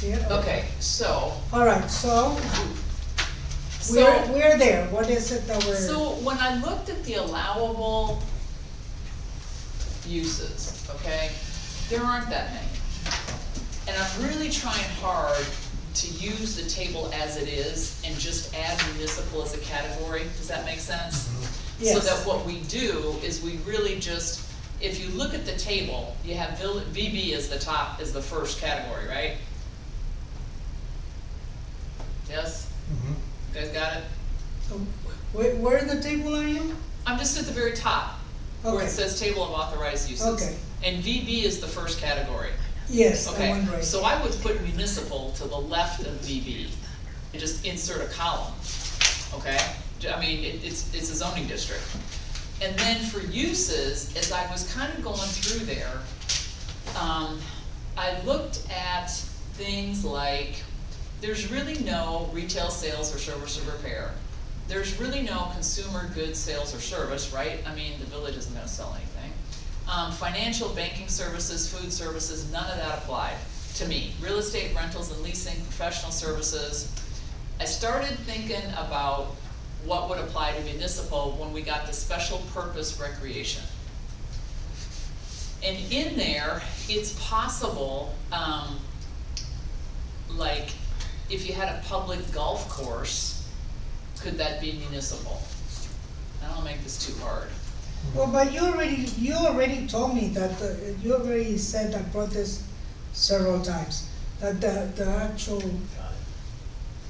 here. Okay, so, All right, so we're, so, we're there. What is it that we're, so when I looked at the allowable uses, okay, there aren't that many. And I'm really trying hard to use the table as it is and just add municipal as a category, does that make sense? So Yes. that what we do is we really just, if you look at the table, you have vill- VB as the top, is the first category, right? Yes? Mm-hmm, Mhm. You guys got it? where, where in the table are you? I'm just at the very top, where Okay. it says table of authorized uses. Okay. And VB is the first category, Yes, the okay? one right. So I would put municipal to the left of VB, and just insert a column, okay? J- I mean, it, it's, it's a zoning district. And then for uses, as I was kind of going through there, um, I looked at things like, there's really no retail sales or service or repair. There's really no consumer goods sales or service, right? I mean, the village isn't gonna sell anything. Um, financial, banking services, food services, none of that applied to me. Real estate, rentals and leasing, professional services. I started thinking about what would apply to municipal when we got to special purpose recreation. And in there, it's possible, um, like, if you had a public golf course, could that be municipal? I don't wanna make this too hard. Well, but you already, you already told me that, the- you already said, I brought this several times, that the, the actual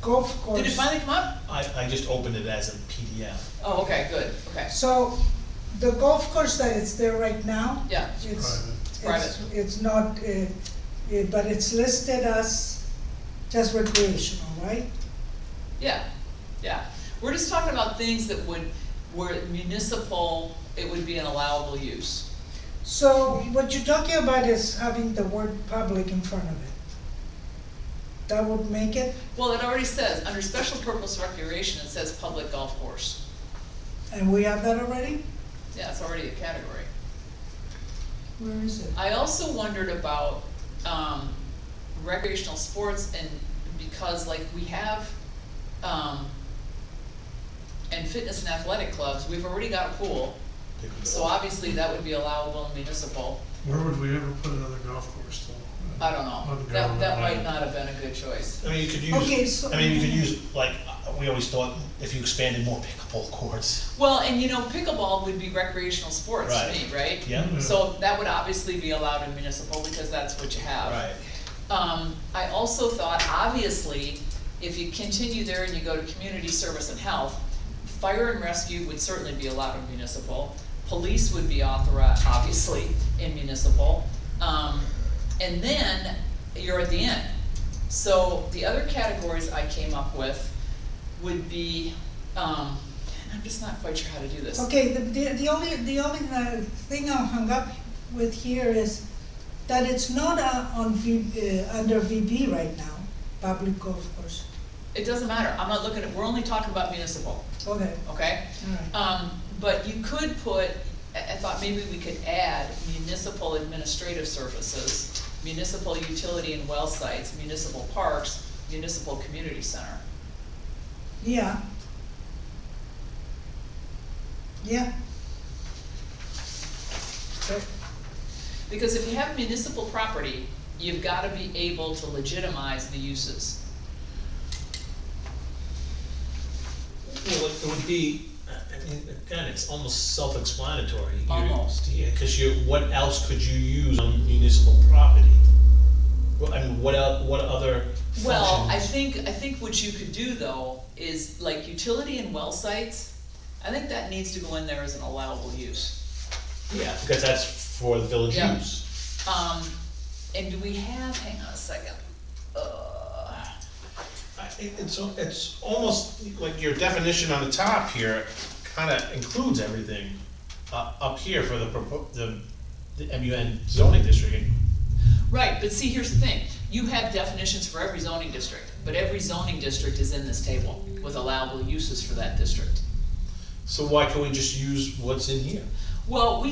golf course. Did it finally come up? I, I just opened it as a PDF. Oh, okay, good, okay, So the golf course that is there right now, yeah, it's, private. it's, it's not, uh, uh, but it's listed as just recreational, right? yeah, yeah. We're just talking about things that would, were municipal, it would be an allowable use. So what you're talking about is having the word public in front of it. That would make it, Well, it already says, under special purpose recreation, it says public golf course. and we have that already? Yeah, it's already a category. Where is it? I also wondered about, um, recreational sports and because like we have, um, and fitness and athletic clubs, we've already got a pool, so obviously that would be allowable in municipal. Where would we ever put another golf course though? I don't know, that, that might not have been a good choice. I mean, you could Okay, use, so- I mean, you could use, like, uh, we always thought, if you expanded more pickleball courts, Well, and you know, pickleball would be recreational sports to me, right? yeah? Mhm. So that would obviously be allowed in municipal because that's what you have. Right, Um, I also thought, obviously, if you continue there and you go to community service and health, fire and rescue would certainly be allowed in municipal. Police would be authorized, obviously, in municipal. Um, and then you're at the end. So the other categories I came up with would be, um, and I'm just not quite sure how to do this. Okay, the, the the only, the only uh, thing I'm hung up with here is that it's not uh, on V, uh, under VB right now, public golf course. It doesn't matter, I'm not looking at, we're only talking about municipal, Okay, okay? all right. Um, but you could put, I, I thought maybe we could add municipal administrative services, municipal utility and well sites, municipal parks, municipal community center. Yeah. Yeah. Okay. Because if you have municipal property, you've gotta be able to legitimize the uses. well, it would be, I mean, again, it's almost self-explanatory. You- Almost. Yeah, cause you, what else could you use on municipal property? Well, I mean, what el, what other functions? Well, I think, I think what you could do though, is like utility and well sites, I think that needs to go in there as an allowable use. Yeah, because that's for the village Yeah. use. Um, and do we have, hang on a second, uh, I- it- It's, al- it's almost like your definition on the top here kinda includes everything uh, up here for the, propo- the, the MUN zoning district. Right, but see, here's the thing, you have definitions for every zoning district, but every zoning district is in this table with allowable uses for that district. So why can't we just use what's in here? Well, we